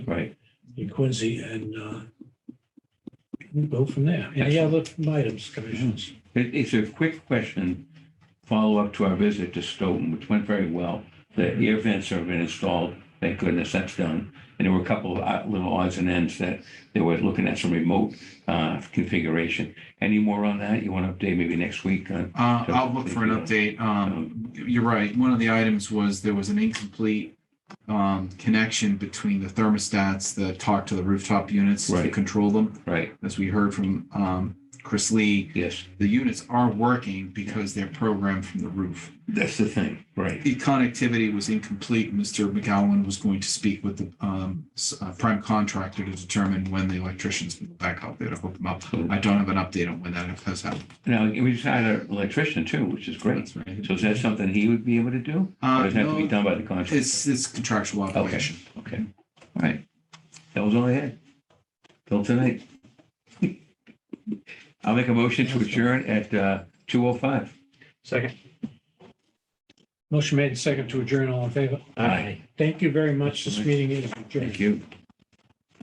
in Quincy and uh, we'll go from there. Any other items, commissions? It- It's a quick question, follow-up to our visit to Stoughton, which went very well. The air vents have been installed, thank goodness that's done. And there were a couple of uh, little odds and ends that they were looking at some remote uh, configuration. Any more on that? You want to update maybe next week on? Uh, I'll look for an update. Um, you're right. One of the items was there was an incomplete um, connection between the thermostats that talk to the rooftop units to Right. control them. Right, As we heard from um, Chris Lee, yes, the units are working because they're programmed from the roof. that's the thing, right. The connectivity was incomplete. Mr. McGowan was going to speak with the um, s- uh, prime contractor to determine when the electricians will back out there to hook them up. I don't have an update on when that has happened. Now, we just hired an electrician too, which is great. That's right. So is that something he would be able to do? Or Uh, does that have to be no, done by the contractor? It's, it's contractual obligation. Okay, all right. That was all I had. Till tonight. I'll make a motion to adjourn at uh, 2:05. Second. Motion made second to adjourn, all in favor? Aye. Thank you very much. This meeting is Thank adjourned. you.